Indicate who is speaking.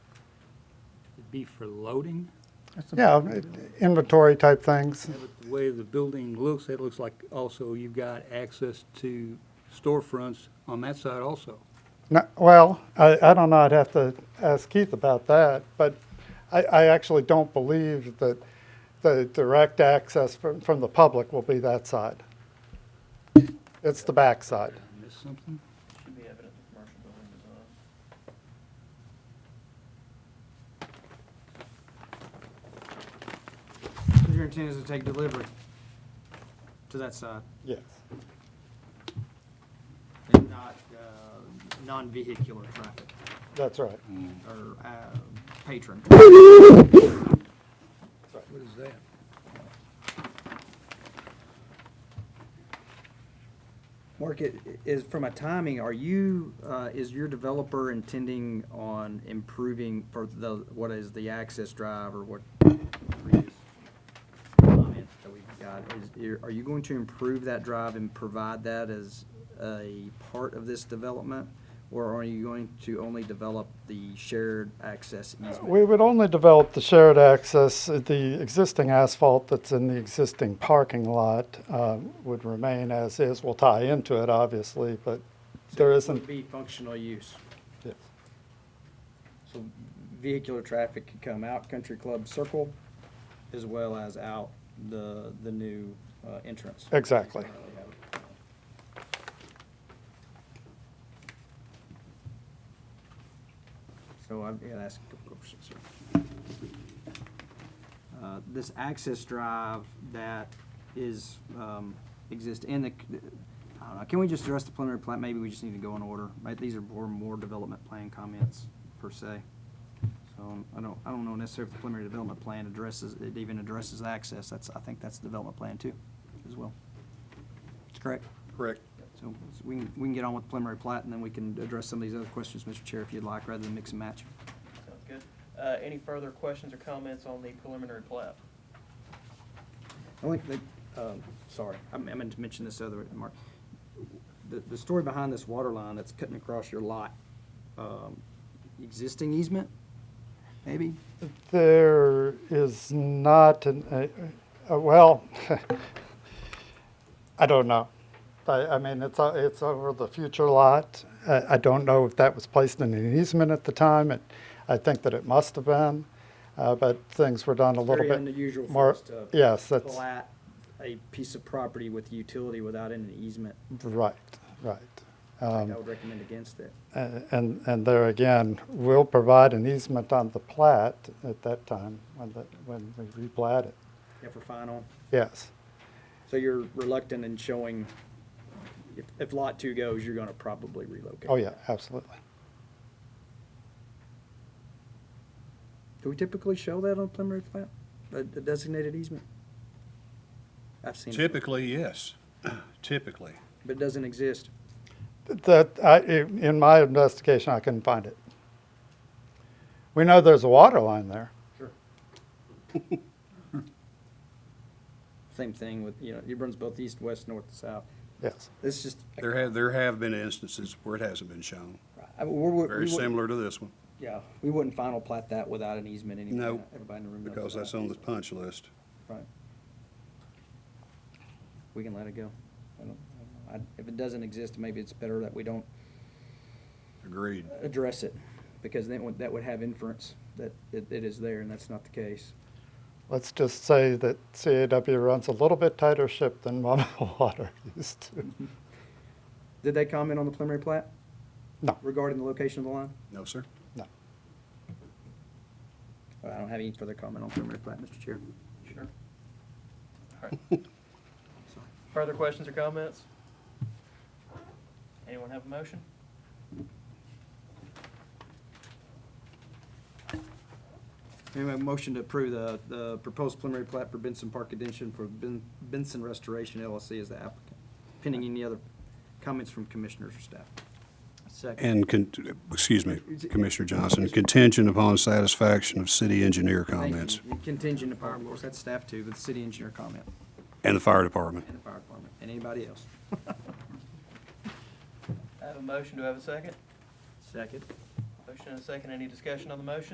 Speaker 1: be for loading?
Speaker 2: That's a-
Speaker 3: Yeah, inventory type things.
Speaker 1: The way the building looks, it looks like also you've got access to storefronts on that side also.
Speaker 3: No- Well, I, I don't know, I'd have to ask Keith about that, but I, I actually don't believe that the direct access from, from the public will be that side. It's the back side.
Speaker 1: Missed something?
Speaker 4: Should be evident the commercial building design.
Speaker 5: So your intent is to take delivery to that side
Speaker 3: Yes.
Speaker 5: and not, uh, non-vehicular traffic
Speaker 3: That's right.
Speaker 5: or, uh, patron.
Speaker 1: What is that?
Speaker 5: Mark, i- is, from a timing, are you, uh, is your developer intending on improving for the, what is the access drive or what? previous comment That we've got, is, are you going to improve that drive and provide that as a part of this development? Or are you going to only develop the shared access easement?
Speaker 3: We would only develop the shared access, uh, the existing asphalt that's in the existing parking lot uh, would remain as is. We'll tie into it, obviously, but there
Speaker 5: So it would
Speaker 3: isn't,
Speaker 5: Be functional use.
Speaker 3: Yes.
Speaker 5: So vehicular traffic could come out Country Club Circle as well as out the, the new uh, entrance.
Speaker 3: exactly.
Speaker 5: So I'm, yeah, that's a good question, sir. Uh, This access drive that is, um, exist in the, I don't know, can we just address the preliminary plat? Maybe we just need to go in order, right? These are more, more development plan comments per se. So um, I don't, I don't know necessarily if the preliminary development plan addresses, it even addresses the access. That's, I think that's the development plan too, as well. That's correct.
Speaker 3: Correct.
Speaker 5: So so we can, we can get on with preliminary plat, and then we can address some of these other questions, Mr. Chair, if you'd like, rather than mix and match.
Speaker 4: Sounds good. Uh, any further questions or comments on the preliminary plat?
Speaker 5: I think that, um, sorry, I meant I meant to mention this other, Mark. The, the story behind this water line that's cutting across your lot, um, existing easement, maybe?
Speaker 3: There is not an, uh, uh, well, I don't know. I, I mean, it's, o- it's over the future lot. I, I don't know if that was placed in an easement at the time. It, I think that it must have been, uh, but things were done a little bit.
Speaker 5: Very unusual for
Speaker 3: more-
Speaker 5: us to
Speaker 3: Yes, that's,
Speaker 5: plat a piece of property with utility without an easement.
Speaker 3: right, right.
Speaker 5: I
Speaker 3: Um,
Speaker 5: would recommend against it.
Speaker 3: a- And, and there again, we'll provide an easement on the plat at that time, when, the- when we replat it.
Speaker 5: Yeah, for final.
Speaker 3: Yes,
Speaker 5: So you're reluctant in showing, if, if lot two goes, you're gonna probably relocate.
Speaker 3: oh yeah, absolutely.
Speaker 5: Do we typically show that on preliminary plat, a a designated easement? I've seen it,
Speaker 6: Typically, yes, typically.
Speaker 5: but it doesn't exist.
Speaker 3: That, I, in my investigation, I couldn't find it. We know there's a water line there.
Speaker 5: Same thing with, you know, it runs both east, west, north, and south.
Speaker 3: Yes,
Speaker 5: It's just,
Speaker 6: There have, there have been instances where it hasn't been shown,
Speaker 5: I, we would.
Speaker 6: very similar to this one,
Speaker 5: Yeah, we wouldn't final plat that without an easement anyway.
Speaker 6: No,
Speaker 5: Everybody in the room knows
Speaker 6: because
Speaker 5: that.
Speaker 6: that's on the punch list.
Speaker 5: Right. We can let it go. I don't, I don't know. I- If it doesn't exist, maybe it's better that we don't
Speaker 6: Agreed.
Speaker 5: address it, because then would- that would have inference that it, it is there, and that's not the case.
Speaker 3: let's just say that CAW runs a little bit tighter ship than Mama Water used to.
Speaker 5: Did they comment on the preliminary plat?
Speaker 3: No.
Speaker 5: Regarding the location of the line?
Speaker 6: No, sir?
Speaker 5: Uh, I don't have any further comment on preliminary plat, Mr. Chair.
Speaker 4: Sure. All right. Further questions or comments? Anyone have a motion?
Speaker 5: May I have a motion to approve the, the proposed preliminary plat for Benson Park addition for Ben- Benson Restoration LLC as the applicant, pending any other comments from commissioners or staff. Second.
Speaker 6: And, con- excuse me, Commissioner Johnson, contingent upon satisfaction of city engineer comments
Speaker 5: Contingent upon, of course, that's staff too, but the city engineer comment
Speaker 6: and the fire department.
Speaker 5: and the fire department, and anybody else.
Speaker 4: I have a motion, do I have a second?
Speaker 5: Second.
Speaker 4: Motion and a second, any discussion on the motion?